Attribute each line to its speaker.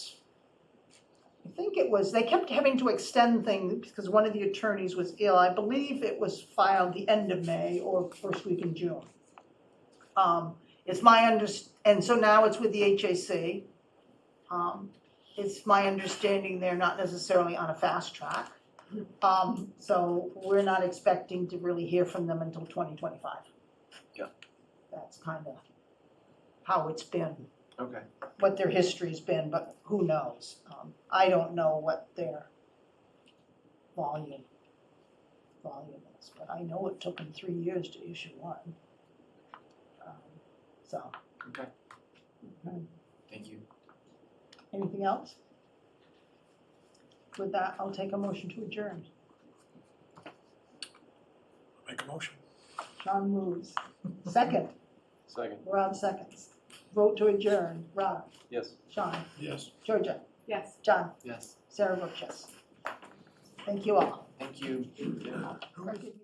Speaker 1: think it was, they kept having to extend things because one of the attorneys was ill. I believe it was filed the end of May or first week in June. Um, It's my under, and so now it's with the HAC. Um, It's my understanding they're not necessarily on a fast track. Um, So we're not expecting to really hear from them until 2025.
Speaker 2: Yeah.
Speaker 1: That's kind of how it's been
Speaker 2: Okay.
Speaker 1: what their history's been, but who knows? Um, I don't know what their volume, volume is, but I know it took them three years to issue one. Um, So,
Speaker 2: Okay. Thank you.
Speaker 1: anything else? With that, I'll take a motion to adjourn.
Speaker 3: Make a motion.
Speaker 1: John moves. Second,
Speaker 2: Second.
Speaker 1: Rob seconds. Vote to adjourn, Rob,
Speaker 2: Yes.
Speaker 1: Sean,
Speaker 3: Yes.
Speaker 1: Georgia,
Speaker 4: Yes.
Speaker 1: John,
Speaker 2: Yes.
Speaker 1: Sarah Burgess. Thank you all.
Speaker 2: Thank you. Yeah.
Speaker 1: Have a good